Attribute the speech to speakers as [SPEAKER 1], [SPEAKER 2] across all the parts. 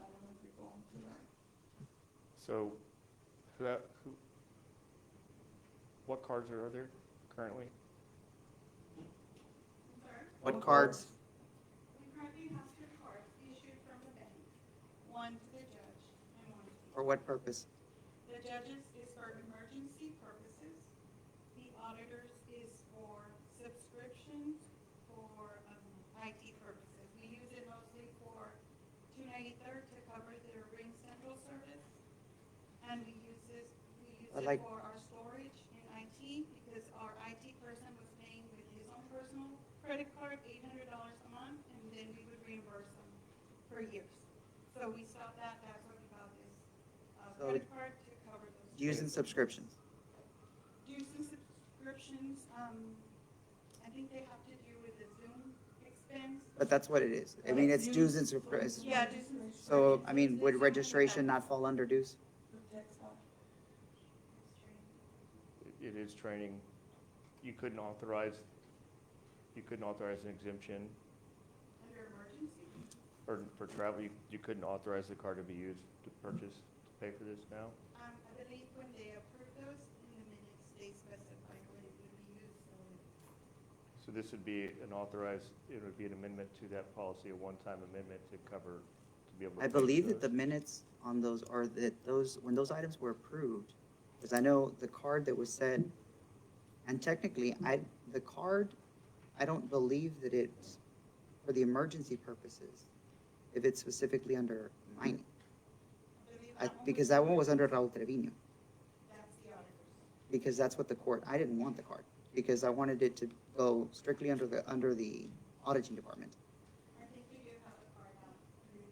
[SPEAKER 1] on tonight.
[SPEAKER 2] So, who, who, what cards are there currently?
[SPEAKER 3] Sir,
[SPEAKER 1] What cards?
[SPEAKER 3] we currently have two cards issued from the bank, one to the judge and one to the...
[SPEAKER 1] For what purpose?
[SPEAKER 3] The judge's is for emergency purposes. The auditor's is for subscriptions for um, IT purposes. We use it mostly for 293rd to cover their Ring Central service. And we use this, we use it
[SPEAKER 1] I like-
[SPEAKER 3] for our storage in IT because our IT person was paying with his own personal credit card, $800 a month, and then we would reimburse them for years. So we stopped that, that's what we got this uh,
[SPEAKER 1] So-
[SPEAKER 3] credit card to cover those.
[SPEAKER 1] Using subscriptions.
[SPEAKER 3] Dues and subscriptions, um, I think they have to do with the Zoom expense.
[SPEAKER 1] But that's what it is. I mean, it's dues and subscriptions.
[SPEAKER 3] Yeah, dues and subscriptions.
[SPEAKER 1] So, I mean, would
[SPEAKER 3] Zoom
[SPEAKER 1] registration
[SPEAKER 3] has
[SPEAKER 1] not fall under dues?
[SPEAKER 2] It- It is training. You couldn't authorize, you couldn't authorize an exemption
[SPEAKER 3] Under emergency,
[SPEAKER 2] or for travel, you, you couldn't authorize the card to be used to purchase, to pay for this now?
[SPEAKER 3] um, I believe when they approve those, in the minutes, they specify what it would be used for.
[SPEAKER 2] So this would be an authorized, it would be an amendment to that policy, a one-time amendment to cover, to be able to.
[SPEAKER 1] I believe that the minutes on those are that those, when those items were approved, because I know the card that was said, and technically, I, the card, I don't believe that it's for the emergency purposes, if it's specifically under mining,
[SPEAKER 3] I believe
[SPEAKER 1] I-
[SPEAKER 3] that one
[SPEAKER 1] because
[SPEAKER 3] was-
[SPEAKER 1] that one was under Raul Trevino.
[SPEAKER 3] That's the auditor's.
[SPEAKER 1] because that's what the court, I didn't want the card, because I wanted it to go strictly under the, under the auditing department.
[SPEAKER 3] I think we do have a card out.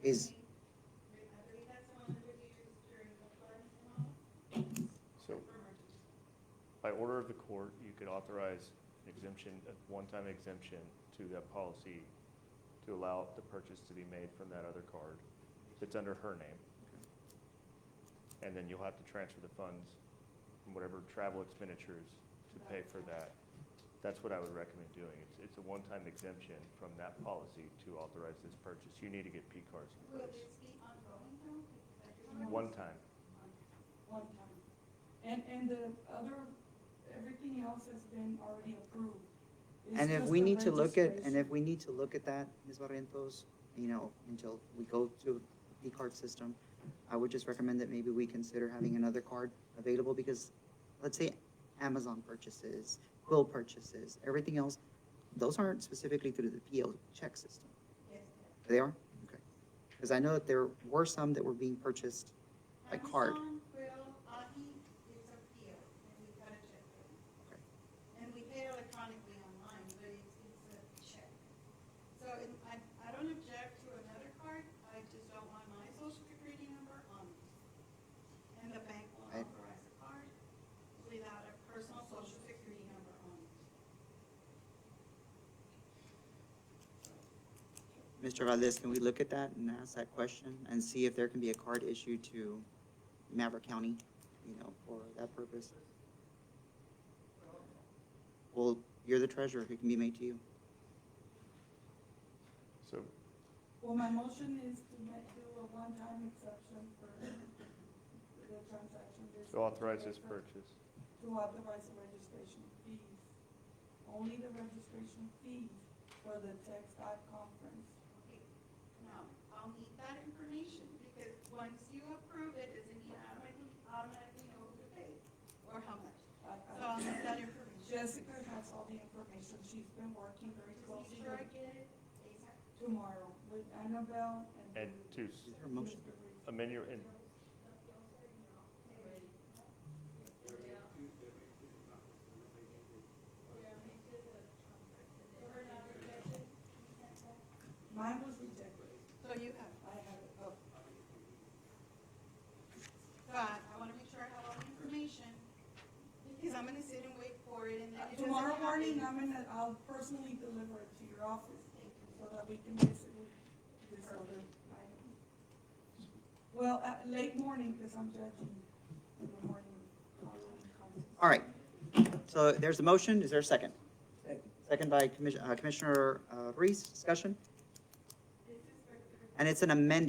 [SPEAKER 1] Is-
[SPEAKER 3] I believe that's the one that we used during the flood and all,
[SPEAKER 2] So
[SPEAKER 3] for emergency.
[SPEAKER 2] by order of the court, you could authorize an exemption, a one-time exemption to that policy to allow the purchase to be made from that other card that's under her name. And then you'll have to transfer the funds from whatever travel expenditures to pay for that. That's what I would recommend doing. It's, it's a one-time exemption from that policy to authorize this purchase. You need to get P cards in
[SPEAKER 3] Will
[SPEAKER 2] place.
[SPEAKER 3] this be ongoing though? Because I do know-
[SPEAKER 2] One time.
[SPEAKER 4] one time. And, and the other, everything else has been already approved. It's
[SPEAKER 1] And if
[SPEAKER 4] just
[SPEAKER 1] we
[SPEAKER 4] the
[SPEAKER 1] need to look at, and
[SPEAKER 4] registration.
[SPEAKER 1] if we need to look at that, Ms. Barrientos, you know, until we go to the card system, I would just recommend that maybe we consider having another card available, because let's say Amazon purchases, Quill purchases, everything else, those aren't specifically through the PO check system.
[SPEAKER 3] Yes.
[SPEAKER 1] They are? Okay. Because I know that there were some that were being purchased A card.
[SPEAKER 3] Amazon, Quill, Ahi, it's a PO, and we've got to check it.
[SPEAKER 1] Okay.
[SPEAKER 3] And we pay electronically online, but it's, it's a check. So and I, I don't object to another card, I just don't want my social security number on it. And the bank will
[SPEAKER 1] Right.
[SPEAKER 3] authorize a card without a personal social security number on it.
[SPEAKER 1] Mr. Valdez, can we look at that and ask that question and see if there can be a card issued to Maverick County, you know, for that purpose? Well, you're the treasurer, it can be made to you.
[SPEAKER 2] So
[SPEAKER 4] Well, my motion is to make, do a one-time exception for the transaction.
[SPEAKER 2] to authorize this
[SPEAKER 4] purchase.
[SPEAKER 2] purchase.
[SPEAKER 4] To authorize the registration fees, only the registration fees for the Tech Dot conference.
[SPEAKER 3] Okay, Now, I'll need that information, because once you approve it, doesn't mean I automatically, automatically know who to pay, or how much.
[SPEAKER 4] I-
[SPEAKER 3] So
[SPEAKER 4] I-
[SPEAKER 3] I'll need that information.
[SPEAKER 4] Jessica has all the information, she's been working very
[SPEAKER 3] Just make
[SPEAKER 4] closely
[SPEAKER 3] sure I
[SPEAKER 4] with-
[SPEAKER 3] get it ASAP.
[SPEAKER 4] tomorrow with Annabelle
[SPEAKER 2] And
[SPEAKER 4] and.
[SPEAKER 2] to s-
[SPEAKER 1] Is there a motion?
[SPEAKER 2] amend your, and
[SPEAKER 4] Mine was rejected,
[SPEAKER 3] So you have,
[SPEAKER 4] I had it oh. up.
[SPEAKER 3] but I wanna make sure I have all the information, because I'm gonna sit and wait for it, and then it doesn't
[SPEAKER 4] Uh, Tomorrow morning,
[SPEAKER 3] happen.
[SPEAKER 4] I'm gonna, I'll personally deliver it to your office, so that we can visit with this other item. Well, uh, late morning, because I'm judging in the morning.
[SPEAKER 1] All right. So there's a motion, is there a second?
[SPEAKER 4] Second.
[SPEAKER 1] Second by Commissioner, Commissioner uh, Reese, uh, discussion?
[SPEAKER 3] This is for-
[SPEAKER 1] And it's an amendment